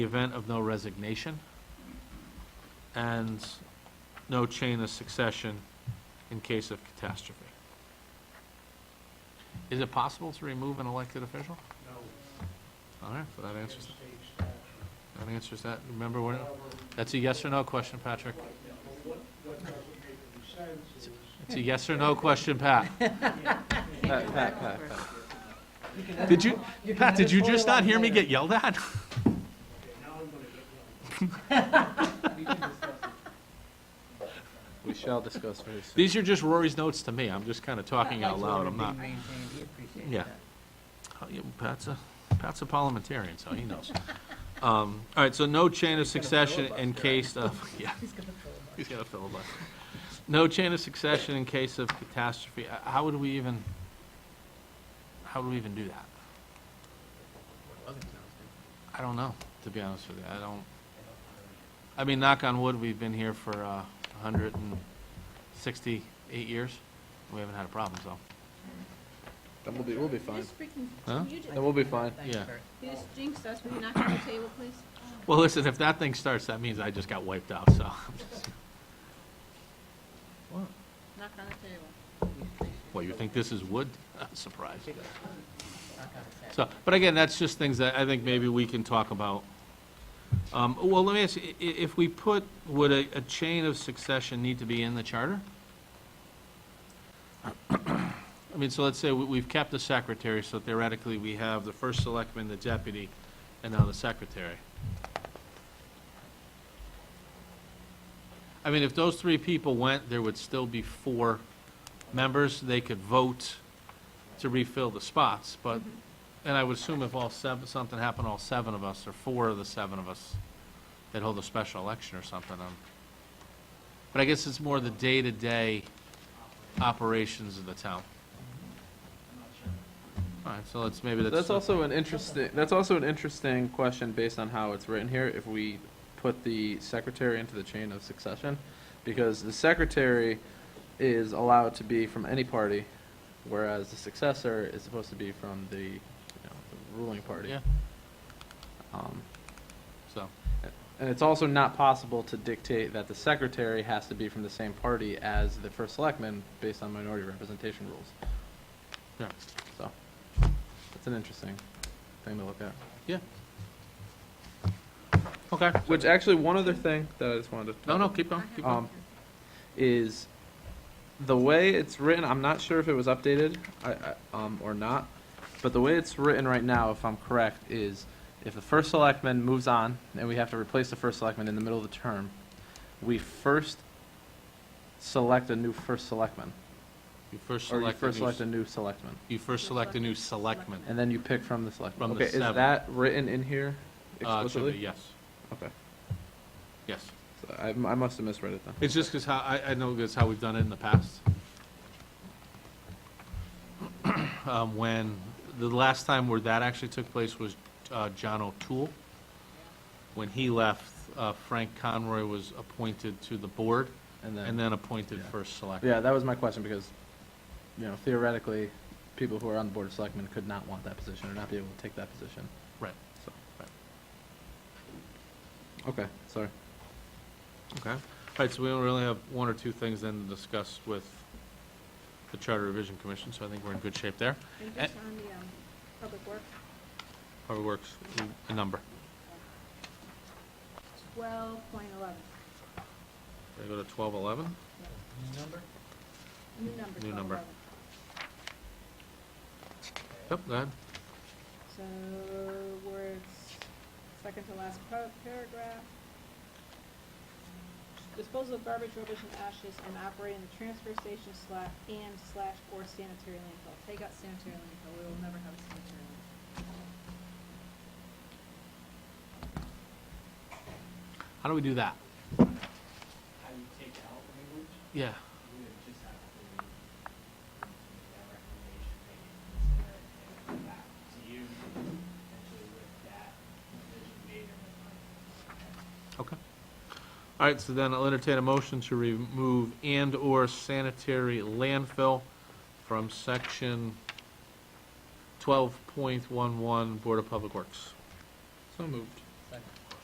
the event of no resignation and no chain of succession in case of catastrophe. Is it possible to remove an elected official? No, All right, so that answers, state statute. that answers that. Remember, when that's a yes or no question, Patrick. But what, what doesn't make any sense is, It's a yes or no question, Pat. Pat, Pat, Pat, Did you, Pat, did you just not hear me get yelled at? okay, now I'm gonna get one. We shall discuss very soon. These are just Rory's notes to me. I'm just kind of talking out loud. I'm not. Yeah. Oh, yeah, Pat's a, Pat's a parliamentarian, so he knows. Um, All right, so no chain of succession in case of, yeah. He's gonna filibuster. No chain of succession in case of catastrophe. Uh, How would we even, how would we even do that? I don't know, to be honest with you. I don't, I mean, knock on wood, we've been here for uh, 168 years. We haven't had a problem, so. Then we'll be, we'll be fine. Just freaking, Huh? you just, Then we'll be fine. Yeah. you just jinxed us, will you knock on the table, please? Well, listen, if that thing starts, that means I just got wiped out, so I'm just- Knock on the table. Well, you think this is wood? Surprise. So, but again, that's just things that I think maybe we can talk about. Um, Well, let me ask, you, i- i- if we put, would a, a chain of succession need to be in the charter? I mean, so let's say we- we've kept the secretary, so theoretically, we have the first selectman, the deputy, and now the secretary. I mean, if those three people went, there would still be four members, they could vote to refill the spots, but, and I would assume if all seven, something happened, all seven of us, or four of the seven of us, they'd hold a special election or something. um, But I guess it's more the day-to-day operations of the town. All right, so let's, maybe that's. That's also an interesting, that's also an interesting question based on how it's written here, if we put the secretary into the chain of succession. Because the secretary is allowed to be from any party, whereas the successor is supposed to be from the, you know, the ruling party. Yeah, Um, so, And it's also not possible to dictate that the secretary has to be from the same party as the first selectman based on minority representation rules. yeah, So, that's an interesting thing to look at. yeah. Okay, Which actually, one other thing that I just wanted to. no, no, keep going, I keep have- going. Um, is the way it's written. I'm not sure if it was updated, I, I, um, or not, but the way it's written right now, if I'm correct, is if the first selectman moves on and we have to replace the first selectman in the middle of the term, we first select a new first selectman, You first or you select, a first new select a s- new selectman, you first select a new selectman. and then you pick from the selectman. From the okay, is seven. that written in Uh, here it should be, explicitly? yes, Okay, yes. so I, I must have misread it then. It's just because how, I, I know that's how we've done it in the past. Um, when, the last time where that actually took place was, uh, John O'Toole. When he left, uh, Frank Conroy was appointed to the board And then. and then appointed first Yeah, selectman. that was my question because, you know, theoretically, people who are on the Board of Selectmen could not want that position or not be able to take that position, Right, so. Right. Okay, sorry. okay. All right, so we only really have one or two things then to discuss with the Charter Revision Commission, so I think we're in good shape there. And just on the, um, public work, Probably works, a number. twelve point eleven, They go to twelve eleven? new number, New twelve number. eleven. Yep, go ahead. So, words, second to last par- paragraph. Disposal of garbage, rubbish, and ashes, and operating the transfer station slash, and slash, or sanitary landfill. Take out sanitary landfill, we will never have a sanitary landfill. How do we do that? How you take out language, Yeah. you would just have to make that recommendation, maybe consider it, and come back to you, potentially with that decision made or not. Okay. All right, so then I'll entertain a motion to remove and/or sanitary landfill from section twelve point one one, Board of Public Works. So moved.